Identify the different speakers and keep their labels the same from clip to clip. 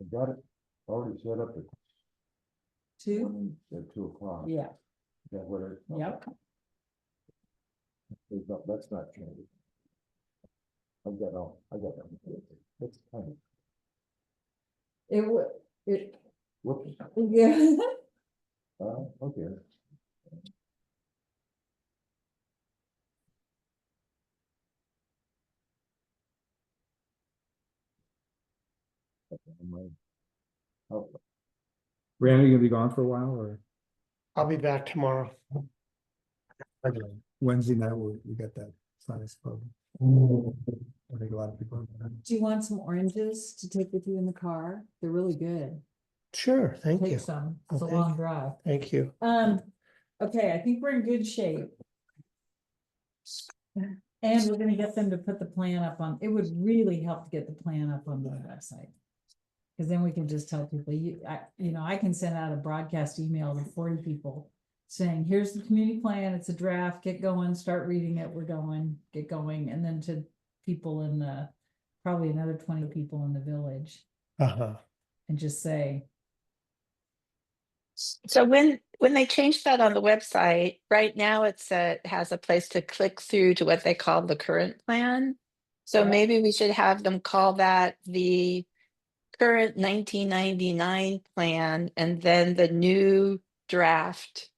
Speaker 1: I got it already set up at
Speaker 2: Two,
Speaker 1: twenty, at two o'clock.
Speaker 2: yeah,
Speaker 1: Is that what it?
Speaker 2: yep,
Speaker 1: There's not- That's not changing. I've got all, I got them. That's fine.
Speaker 2: it would, it,
Speaker 1: Whoops,
Speaker 2: yeah,
Speaker 1: uh, okay. Okay, my-
Speaker 3: Randy, you gonna be gone for a while or
Speaker 4: I'll be back tomorrow.
Speaker 3: Wednesday night, we, we got that sinus problem. I think a lot of people.
Speaker 2: do you want some oranges to take with you in the car? They're really good.
Speaker 4: Sure, thank you.
Speaker 2: Take some, it's a
Speaker 4: I'll take
Speaker 2: long
Speaker 4: it.
Speaker 2: drive.
Speaker 4: Thank you.
Speaker 2: Um, okay, I think we're in good shape. And we're gonna get them to put the plan up on, it would really help to get the plan up on the website. Cause then we can just tell people, you, I, you know, I can send out a broadcast email to forty people. Saying, here's the community plan, it's a draft, get going, start reading it, we're going, get going, and then to people in the. Probably another twenty people in the village
Speaker 4: Uh-huh.
Speaker 2: and just say,
Speaker 5: So when, when they changed that on the website, right now it's a, has a place to click through to what they call the current plan. So
Speaker 2: Yeah.
Speaker 5: maybe we should have them call that the current nineteen ninety-nine plan and then the new draft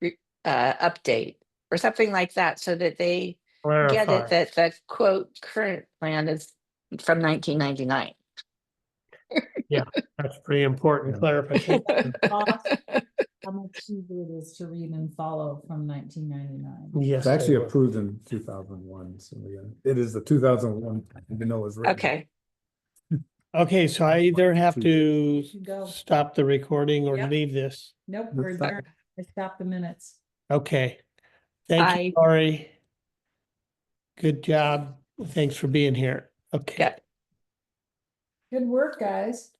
Speaker 5: re- uh, update or something like that, so that they get it
Speaker 4: Clarify.
Speaker 5: that the quote current plan is from nineteen ninety-nine.
Speaker 4: That's pretty important
Speaker 3: Yeah.
Speaker 4: clarification.
Speaker 2: off how much easier it is to read and follow from nineteen ninety-nine.
Speaker 4: Yes.
Speaker 3: It's
Speaker 4: I
Speaker 3: actually
Speaker 4: will.
Speaker 3: approved in two thousand one, so we, uh, it is the two thousand one, even though it was written.
Speaker 5: Okay,
Speaker 4: Okay, so I either have to
Speaker 2: You go,
Speaker 4: stop the recording or
Speaker 2: Yep.
Speaker 4: leave this.
Speaker 2: nope, we're
Speaker 3: That's fine.
Speaker 2: adjourned. I stopped the minutes.
Speaker 4: Okay. Thank
Speaker 5: Bye.
Speaker 4: you, Lori. Good job. Thanks for being here. Okay.
Speaker 5: Yeah.
Speaker 2: Good work, guys.